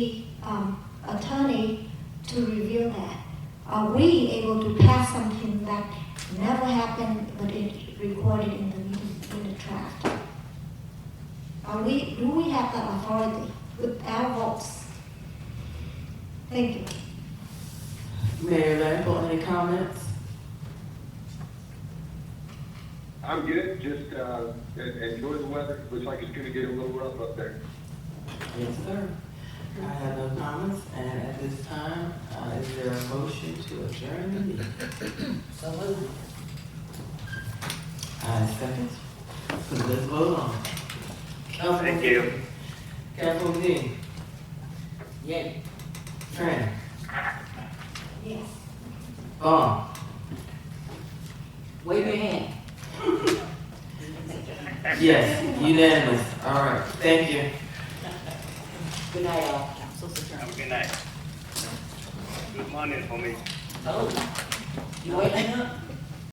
the um, attorney to review that. Are we able to pass something that never happened, but it recorded in the, meeting- in the draft? Are we, do we have that authority with our votes? Thank you. Mayor Lambert, any comments? I'm good, just, uh, en- enjoy the weather, looks like it's gonna get a little rough up there. Yes, sir. I have no comments, and at this time, uh, is there a motion to adjourn the meeting? So moved. I second. So let's vote on. it. Thank you. Councilwoman Dean. Yay. Tran. Yes. Vaughn. Wave your hand. Yes, unanimous. All right, thank you. Good night, all. Council's Have adjourned. a good night. Good morning, homie. Oh, you waking up?